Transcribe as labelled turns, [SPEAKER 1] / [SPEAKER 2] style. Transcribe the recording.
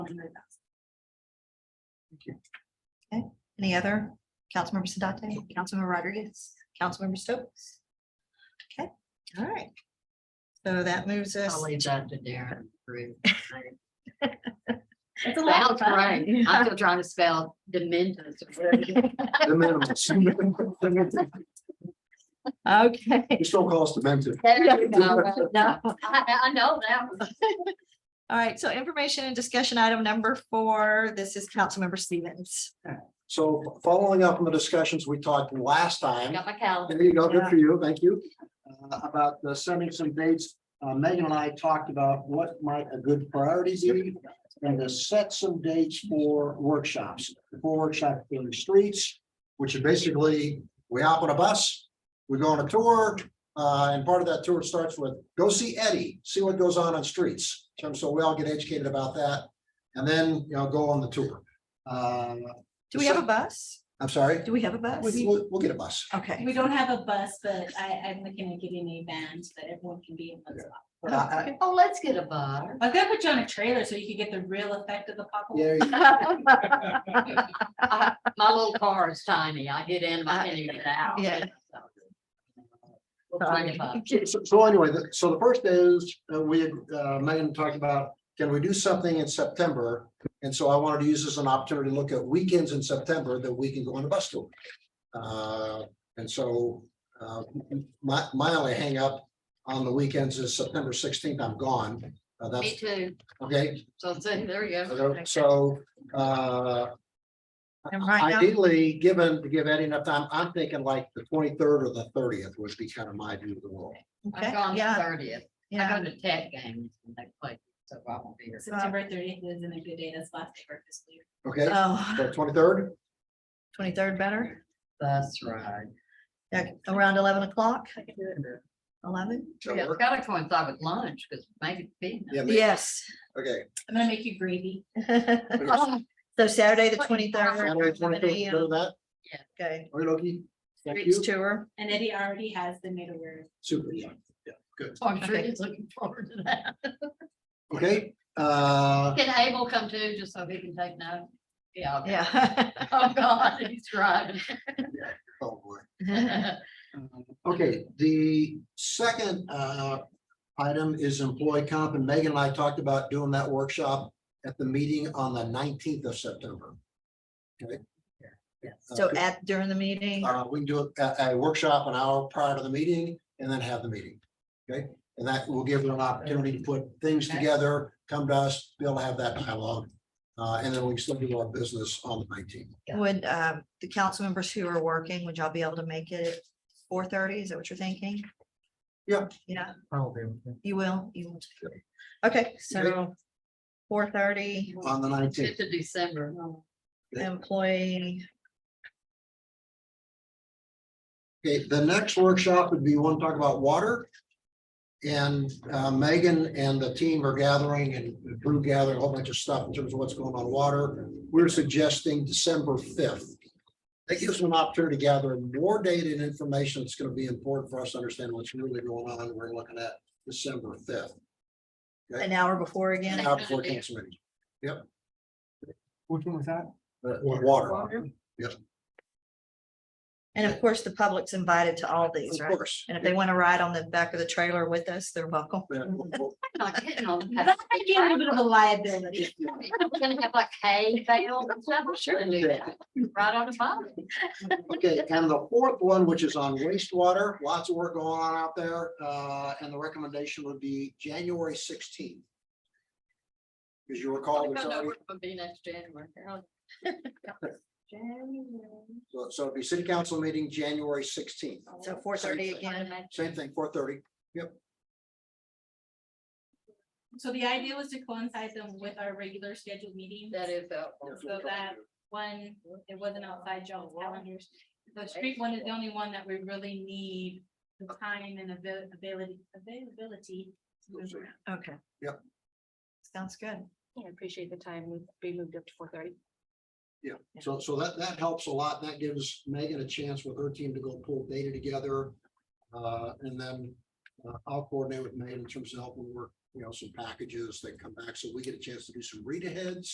[SPEAKER 1] Okay, any other? Councilmember Sedate, Councilmember Rodriguez, Councilmember Stokes? Okay, all right. So that moves us,
[SPEAKER 2] I'll leave that to Darren. Ruth.
[SPEAKER 3] It's a lot of
[SPEAKER 2] That's right.
[SPEAKER 3] fun.
[SPEAKER 2] I'm still trying to spell dementors.
[SPEAKER 4] The minimums.
[SPEAKER 1] okay.
[SPEAKER 4] You still call us demented.
[SPEAKER 2] No, no, I, I know that one.
[SPEAKER 1] All right, so information and discussion item number four, this is Councilmember Stevens.
[SPEAKER 4] So following up on the discussions we talked last time.
[SPEAKER 2] Got my calendar.
[SPEAKER 4] There you go, good for you, thank you. Uh, About uh, sending some dates, Uh, Megan and I talked about what might a good priority be. And to set some dates for workshops, for workshop in the streets, which is basically, we hop on a bus, we go on a tour. uh, And part of that tour starts with, go see Eddie, see what goes on on streets. So- So we all get educated about that. And then, you know, go on the tour. Uh,
[SPEAKER 1] Do we have a bus?
[SPEAKER 4] I'm sorry,
[SPEAKER 1] Do we have a bus?
[SPEAKER 4] We- we'll, we'll get a bus.
[SPEAKER 1] Okay,
[SPEAKER 3] We don't have a bus, but I, I'm looking at getting a van so that everyone can be in one spot.
[SPEAKER 4] Uh, uh,
[SPEAKER 2] Oh, let's get a bar.
[SPEAKER 3] I was gonna put you on a trailer so you could get the real effect of the popcorn.
[SPEAKER 4] there you
[SPEAKER 2] I- My little car is tiny. I get in, my and you get out.
[SPEAKER 1] Yeah.
[SPEAKER 2] We'll find a bar.
[SPEAKER 4] So- So so anyway, the- so the first is, uh, we, uh, Megan talked about, can we do something in September? And so I wanted to use this as an opportunity to look at weekends in September that we can go on a bus tour. Uh, And so uh, my, my only hangup on the weekends is September sixteenth, I'm gone. Uh,
[SPEAKER 2] Me
[SPEAKER 4] That's,
[SPEAKER 2] too.
[SPEAKER 4] okay,
[SPEAKER 2] So see, there you go.
[SPEAKER 4] so uh,
[SPEAKER 1] and right now,
[SPEAKER 4] ideally, given, to give Eddie enough time, I'm thinking like the twenty-third or the thirtieth would be kind of my view of the world.
[SPEAKER 2] I'm
[SPEAKER 1] okay,
[SPEAKER 2] gone
[SPEAKER 1] yeah,
[SPEAKER 2] thirtieth. I
[SPEAKER 1] yeah,
[SPEAKER 2] go to tech games when they play, so I won't be here.
[SPEAKER 3] September thirtieth isn't a good day. That's last day for fiscal year.
[SPEAKER 4] Okay,
[SPEAKER 2] Uh,
[SPEAKER 1] oh,
[SPEAKER 4] twenty-third?
[SPEAKER 1] twenty-third better,
[SPEAKER 2] That's right.
[SPEAKER 1] Yeah, around eleven o'clock,
[SPEAKER 3] I can do it.
[SPEAKER 1] eleven?
[SPEAKER 2] Yeah, it's gotta coincide with lunch, because maybe.
[SPEAKER 4] Yeah, maybe.
[SPEAKER 1] Yes.
[SPEAKER 4] Okay.
[SPEAKER 3] I'm gonna make you gravy.
[SPEAKER 1] So Saturday, the twenty-third,
[SPEAKER 4] Saturday, 23rd,
[SPEAKER 1] um,
[SPEAKER 4] go to that.
[SPEAKER 1] okay,
[SPEAKER 4] Okay, Loki. Thank
[SPEAKER 1] streets
[SPEAKER 4] you.
[SPEAKER 1] tour,
[SPEAKER 3] And Eddie already has been made aware.
[SPEAKER 4] Super. yeah, yeah, Good.
[SPEAKER 2] So I'm sure he's looking forward to that.
[SPEAKER 4] Okay, uh,
[SPEAKER 2] Can Abel come too, just so he can take notes? Yeah. okay.
[SPEAKER 1] yeah.
[SPEAKER 2] Oh, God, he's driving.
[SPEAKER 4] oh boy. Okay, the second uh item is employee comp, and Megan and I talked about doing that workshop at the meeting on the nineteenth of September. Okay?
[SPEAKER 1] So at, during the meeting,
[SPEAKER 4] Uh, we can do a, a workshop an hour prior to the meeting and then have the meeting. Okay, and that will give them an opportunity to put things
[SPEAKER 2] Okay.
[SPEAKER 4] together, come to us, be able to have that dialogue. Uh, and then we can still do our business on the nineteenth.
[SPEAKER 1] would, um, the council members who are working, would y'all be able to make it four thirty, is that what you're thinking?
[SPEAKER 4] Yeah.
[SPEAKER 1] Yeah.
[SPEAKER 5] Probably.
[SPEAKER 1] You will, you will. Okay, so four thirty
[SPEAKER 4] On the nineteenth,
[SPEAKER 2] Fifth of December.
[SPEAKER 4] Okay.
[SPEAKER 1] employee,
[SPEAKER 4] okay, the next workshop would be one talk about water. And uh, Megan and the team are gathering and Drew gathering a whole bunch of stuff in terms of what's going on with water. We're suggesting December fifth. That gives them an opportunity to gather more data and information that's gonna be important for us to understand what's really going on. We're looking at December fifth.
[SPEAKER 1] an hour before again.
[SPEAKER 4] Now before council meeting,
[SPEAKER 5] Which one was that?
[SPEAKER 4] uh, water.
[SPEAKER 1] And of course, the public's invited to all these,
[SPEAKER 4] Of
[SPEAKER 1] right?
[SPEAKER 4] course.
[SPEAKER 1] And if they want to ride on the back of the trailer with us, they're welcome.
[SPEAKER 4] Yeah, we'll- we'll-
[SPEAKER 2] Not getting on
[SPEAKER 3] That
[SPEAKER 2] that.
[SPEAKER 3] might be a little bit of a liability.
[SPEAKER 2] We're gonna have like hay bales and stuff. Sure. do that. Right on the bottom.
[SPEAKER 4] Okay, and the fourth one, which is on wastewater, lots of work going on out there, uh, and the recommendation would be January sixteenth. As you recall,
[SPEAKER 2] Don't
[SPEAKER 4] there's
[SPEAKER 2] know
[SPEAKER 4] already,
[SPEAKER 2] where it'll be next January. January.
[SPEAKER 4] so- so it'd be city council meeting, January sixteenth,
[SPEAKER 1] So four thirty again.
[SPEAKER 4] same thing, four thirty.
[SPEAKER 3] So the idea was to coincide them with our regular scheduled meeting.
[SPEAKER 2] That is helpful.
[SPEAKER 3] So that one, it wasn't outside
[SPEAKER 2] Oh,
[SPEAKER 3] y'all's calendars. The street one is the only one that we really need the time and avail- ability, availability. to move around.
[SPEAKER 1] Okay.
[SPEAKER 4] Yep.
[SPEAKER 1] Sounds good.
[SPEAKER 6] I appreciate the time we we moved up to four thirty.
[SPEAKER 4] Yeah, so, so that, that helps a lot. That gives Megan a chance with her team to go pull data together. Uh, and then uh, I'll coordinate with Megan in terms of helping work, you know, some packages that come back, so we get a chance to do some read aheads.